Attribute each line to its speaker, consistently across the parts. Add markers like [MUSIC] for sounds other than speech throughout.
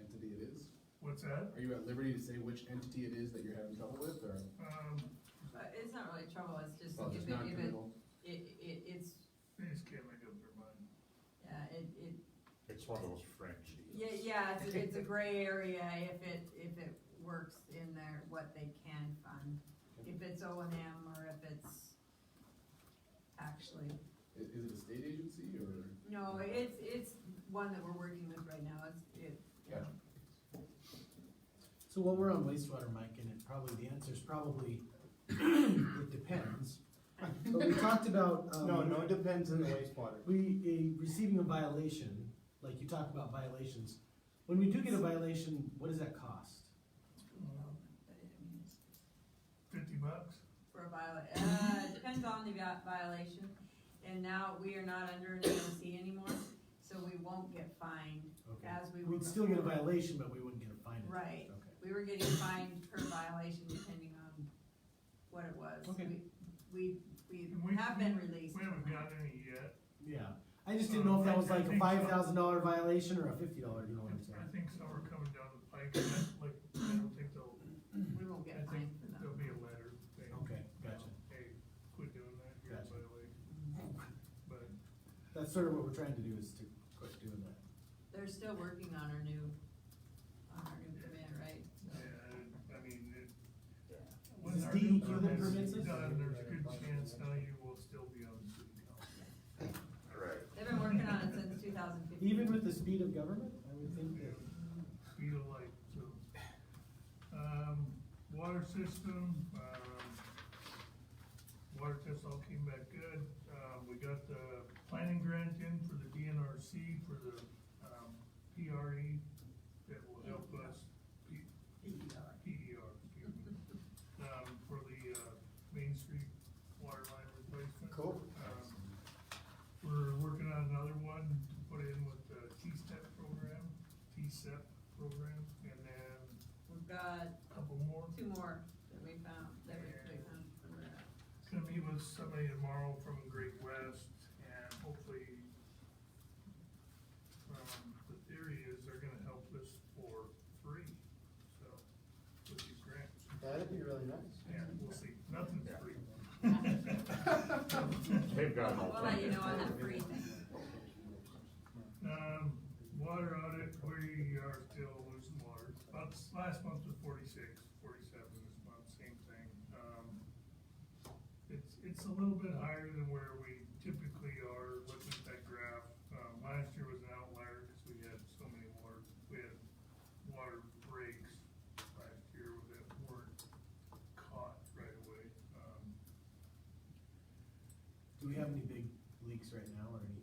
Speaker 1: entity it is?
Speaker 2: What's that?
Speaker 1: Are you at liberty to say which entity it is that you're having trouble with, or?
Speaker 2: Um,
Speaker 3: Uh, it's not really trouble, it's just
Speaker 1: Well,
Speaker 3: if
Speaker 1: it's
Speaker 3: it, if it,
Speaker 1: non-criminal.
Speaker 3: it, it, it's,
Speaker 2: they just can't make up their mind.
Speaker 3: yeah, it, it,
Speaker 4: It's one of those fringe
Speaker 3: yeah,
Speaker 4: deals.
Speaker 3: yeah, it's, it's a gray area if it, if it works in there, what they can fund. If it's O and M or if it's actually,
Speaker 1: I- Is, it a state agency, or?
Speaker 3: no, it's, it's one that we're working with right now, it's, it,
Speaker 1: Gotcha.
Speaker 5: So while we're on wastewater, Mike, and it probably, the answer's probably, [CLEARS THROAT] it depends. But we talked about, um.
Speaker 6: No, no, it depends on the wastewater.
Speaker 5: We, eh, receiving a violation, like you talk about violations, when we do get a violation, what does that cost?
Speaker 3: but it, I mean, it's
Speaker 2: Fifty bucks?
Speaker 3: for a viola, uh, it depends on the vi- violation. And now we are not under an LC anymore, so we won't get fined
Speaker 5: Okay.
Speaker 3: as we were
Speaker 5: We'd still get a
Speaker 3: before.
Speaker 5: violation, but we wouldn't get a fine.
Speaker 3: Right,
Speaker 5: Okay.
Speaker 3: we were getting fined per violation depending on what it was.
Speaker 5: Okay.
Speaker 3: We, we,
Speaker 2: And
Speaker 3: we
Speaker 2: we-
Speaker 3: have been released.
Speaker 2: We haven't got any yet.
Speaker 5: Yeah, I just didn't know if that was
Speaker 2: Uh, I
Speaker 5: like a
Speaker 2: think so.
Speaker 5: five thousand dollar violation or a fifty dollar, you know what Oh, I'm
Speaker 2: I
Speaker 5: saying?
Speaker 2: think some are coming down the pike, and that's like, I don't think they'll,
Speaker 3: We won't
Speaker 2: I
Speaker 3: get
Speaker 2: think
Speaker 3: fined for them.
Speaker 2: there'll be a letter thing.
Speaker 5: Okay, gotcha.
Speaker 2: Hey, quit doing that, you're
Speaker 5: Gotcha.
Speaker 2: violating. But
Speaker 5: That's sort of what we're trying to do is to quit doing that.
Speaker 3: They're still working on our new, on our new permit, right?
Speaker 2: Yeah, I mean, it.
Speaker 4: Yeah.
Speaker 2: when
Speaker 5: Is
Speaker 2: our
Speaker 5: DEQ
Speaker 2: new
Speaker 5: that
Speaker 2: permit's
Speaker 5: permits it?
Speaker 2: Done, there's a good chance now you will still be on the city council.
Speaker 4: Right.
Speaker 3: They've been working on it since two thousand fifteen.
Speaker 5: Even with the speed of government, I would think that.
Speaker 2: Speed of light, so. Um, water system, um, water test all came back good. Uh, we got the planning grant in for the DNRC for the, um, PRE that will help us, P,
Speaker 3: PER.
Speaker 2: PER, excuse me, um, for the, uh, Main Street water line replacement.
Speaker 6: Cool.
Speaker 2: Um, We're working on another one to put in with the T-step program, T-step program, and then
Speaker 3: We've got
Speaker 2: a couple more.
Speaker 3: two more that we found, that we- we found.
Speaker 2: Gonna meet with somebody tomorrow from Great West and hopefully, um, the theory is they're gonna help us for free, so, with these grants.
Speaker 6: That'd be really nice.
Speaker 2: Yeah, we'll see, nothing's free.
Speaker 4: They've got an
Speaker 3: We'll let you
Speaker 4: alternative.
Speaker 3: know on that free thing.
Speaker 2: Um, water audit, we are still losing water, about, this last month was forty-six, forty-seven this month, same thing, um. It's, it's a little bit higher than where we typically are, looking at that graph, um, last year was an outlier, cause we had so many water, we had water breaks last year that weren't caught right away, um.
Speaker 5: Do we have any big leaks right now or anything?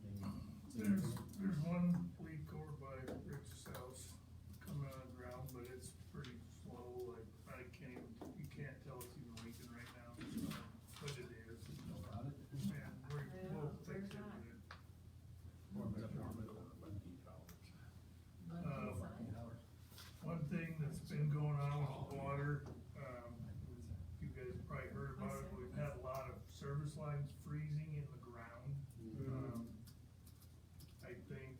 Speaker 2: There's, there's one leak over by Rick's house coming out of the ground, but it's pretty slow, like, I can't, even- you can't tell it's even leaking right now, um, but it is. And we're, we'll fix it, but it- Um, One thing that's been going on with the water, um, you guys probably heard about it, we've had a lot of service lines freezing in the ground. Um, I think,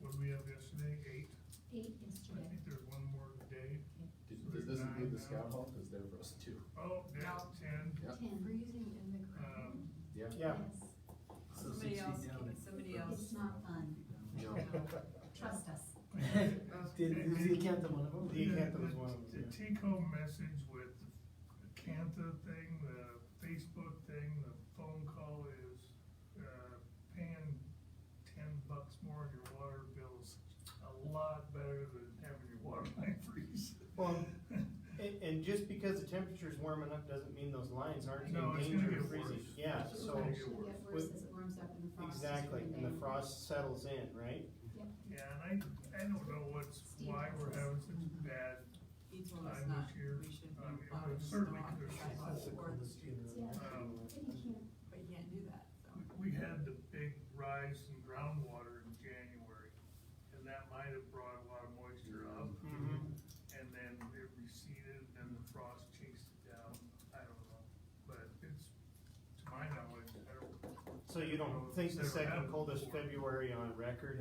Speaker 2: what did we have yesterday, eight?
Speaker 7: Eight
Speaker 2: I
Speaker 7: yesterday.
Speaker 2: think there's one more today.
Speaker 1: Did- Does this include the scout hall, cause they're for us too?
Speaker 2: Oh, yeah, ten,
Speaker 1: Yeah.
Speaker 7: Ten.
Speaker 8: Freezing in the ground.
Speaker 2: um,
Speaker 1: Yeah.
Speaker 6: Yeah,
Speaker 7: Yes.
Speaker 5: So six
Speaker 3: Somebody
Speaker 5: feet
Speaker 3: else,
Speaker 5: down.
Speaker 3: somebody else.
Speaker 7: It's not fun.
Speaker 1: No.
Speaker 7: Trust us.
Speaker 5: Did, is the Acantha one of them?
Speaker 6: the Acantha was one of
Speaker 2: The
Speaker 6: them.
Speaker 2: take home message with the Canta thing, the Facebook thing, the phone call is, uh, paying ten bucks more on your water bills, a lot better than having your water [LAUGHS] line freeze.
Speaker 6: Well, yeah. And, and just because the temperature's warming up doesn't mean those lines aren't
Speaker 2: No,
Speaker 6: in
Speaker 2: it's gonna
Speaker 6: danger
Speaker 2: get
Speaker 6: of freezing.
Speaker 2: worse.
Speaker 6: Yeah,
Speaker 2: It's
Speaker 6: so,
Speaker 2: gonna
Speaker 7: It'll
Speaker 2: get
Speaker 7: actually
Speaker 2: worse.
Speaker 7: get worse as it warms up and the frost. is
Speaker 6: exactly,
Speaker 7: coming
Speaker 6: and the
Speaker 7: down.
Speaker 6: frost settles in, right?
Speaker 7: Yep.
Speaker 2: Yeah, and I, I don't know what's, why we're having such a bad,
Speaker 3: He told us
Speaker 2: I'm
Speaker 3: not,
Speaker 2: with you.
Speaker 3: we should
Speaker 2: I'm-
Speaker 3: be
Speaker 2: I'm
Speaker 3: plowing snow
Speaker 2: certainly
Speaker 3: off the
Speaker 2: good.
Speaker 3: sidewalk or the streets,
Speaker 7: Yeah.
Speaker 2: um,
Speaker 7: But you can't-
Speaker 3: but you can't do that, so.
Speaker 2: We had the big rise in groundwater in January, and that might have brought a lot of moisture up,
Speaker 6: Mm-hmm.
Speaker 2: and then it receded, and the frost chased it down, I don't know. But it's, to my knowledge, I don't
Speaker 6: So you don't think the second coldest February on record